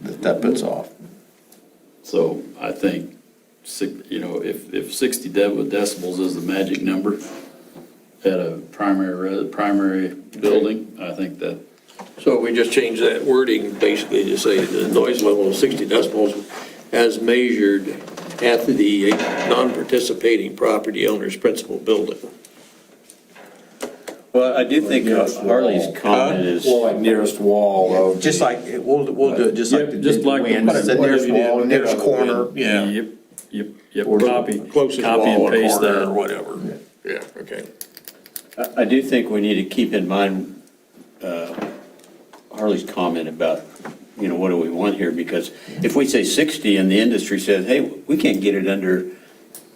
that bit's off. So I think, si- you know, if, if 60 deb- decibels is the magic number at a primary, re- primary building, I think that, So we just changed that wording, basically to say the noise level of 60 decibels as measured at the non-participating property owner's principal building. Well, uh, I do think uh, Harley's comment is, Well, like nearest wall of. Just like, we'll, we'll do it just like. Yep, the- just like the It's the nearest wind. Whatever you wall, did, nearest whatever you corner. Yeah. yep, yep, yep, Or the copy, Closest copy wall and or paste corner Or that. whatever. Yeah, okay. I I do think we need to keep in mind uh, Harley's comment about, you know, what do we want here? Because if we say 60 and the industry says, hey, we can't get it under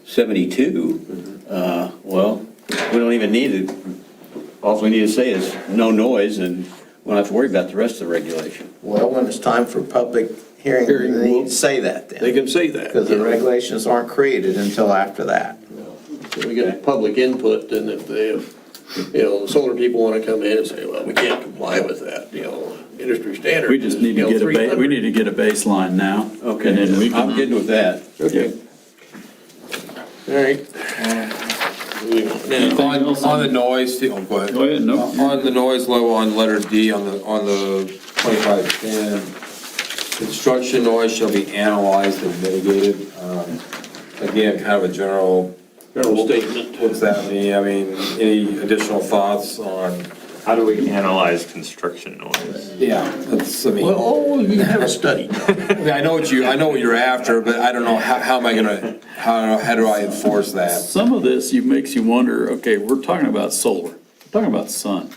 72, uh, well, we don't even need it. All we need to say is no noise and we don't have to worry about the rest of the regulation. Well, when it's time for public hearing, Hearing, they well, need to say that They then, can say that. because the regulations aren't created until after that. So we get public input, and if they, you know, the solar people want to come in and say, well, we can't comply with that, you know, industry standard. We just need to you know, get a, ba- 300. we need to get a baseline now. Okay, And then we I'm can, good with that. yep. All right. Moving on. Now, Anything On, else on the noise, oh, go ahead. Go ahead, no. On the noise level on letter D on the, on the twenty-five ten, construction noise shall be analyzed and mitigated. Um, Again, kind of a general, General statement. what's that mean? I mean, any additional thoughts on? How do we analyze construction noise? Yeah. That's, I mean. Well, oh, you can have a study. I mean, I know what you, I know what you're after, but I don't know, how, how am I gonna, how, how do I enforce that? Some of this you, makes you wonder, okay, we're talking about solar, we're talking about sun.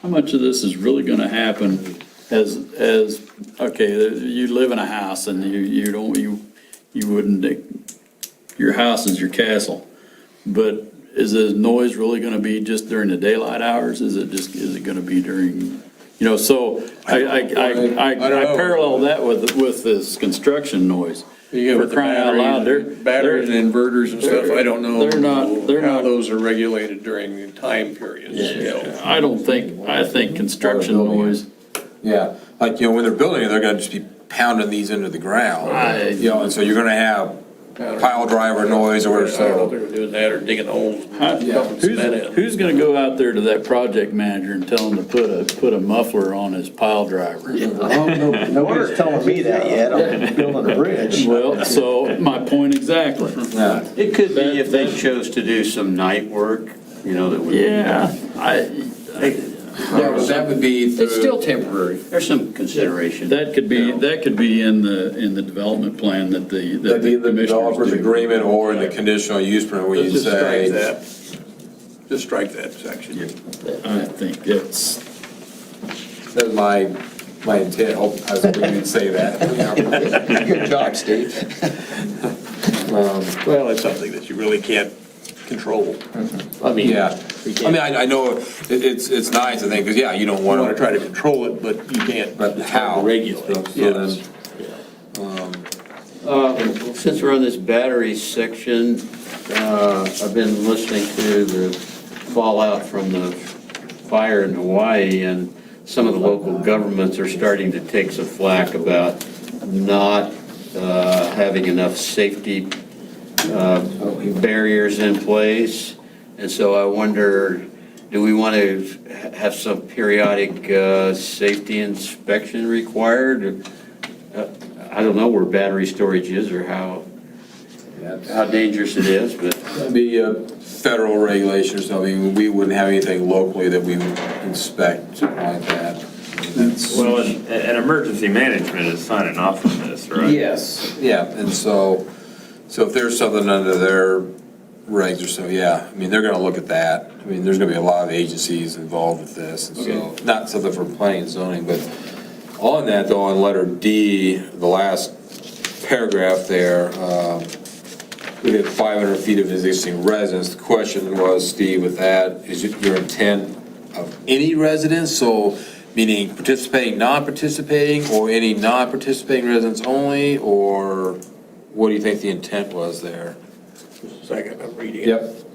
How much of this is really gonna happen as, as, okay, you live in a house and you, you don't, you, you wouldn't, your house is your castle. But is the noise really gonna be just during the daylight hours? Is it just, is it gonna be during, you know, so I, I, I, I I don't know. I parallel that with, with this construction noise. Yeah, For with the crying out loud, they're. batteries, batteries they're- and inverters and stuff, I don't know. They're not- they're How not- those are regulated during the time periods, you know. I don't think, I think construction noise, Yeah, like, you know, when they're building it, they're gonna just be pounding these into the ground. I- You know, and so you're gonna have pile driver noise or whatever, I don't know if so. they were doing that or digging holes. I- who's, who's gonna go out there to that project manager and tell him to put a, put a muffler on his pile driver? Nobody's telling me that yet, I'm building a bridge. Well, so, my point exactly. Yeah. It could be if they chose to do some night work, you know, that would. Yeah, I, That would be through. temporary. There's some consideration. that could be, that could be in the, in the development plan that the, that That'd be the in the commissioners developer's do. agreement or in the conditional use permit where you Just strike say. that. Just strike that section. I think that's, That's my, my intent, hope, I was hoping you'd say that. Good job, Steve. Well, it's something that you really can't control. I mean, you Yeah, I mean, I, I know it- it's, it's nice, I think, because, yeah, you don't want to want to, try to control it, but you can't. but It's hard to how? Regulate, So then- yes. Uh, Since we're on this battery section, uh, I've been listening to the fallout from the fire in Hawaii, and some of the local governments are starting to take some flack about not uh, having enough safety uh, barriers in place. And so I wonder, do we want to have some periodic uh, safety inspection required? I don't know where battery storage is or how, how dangerous it is, but That'd Be a federal regulation or something, we wouldn't have anything locally that we would inspect like that. That's- Well, an, an emergency management is signing off on this, right? Yes. Yeah, and so, so if there's something under their regs or so, yeah, I mean, they're gonna look at that. I mean, there's gonna be a lot of agencies involved with this, and so, not something for planning and zoning, but on that though, on letter D, the last paragraph there, um, we did 500 feet of existing residence. The question was, Steve, with that, is it your intent of any residence? So meaning participating, non-participating, or any non-participating residents only? Or what do you think the intent was there? Second, I'm reading it. Yep.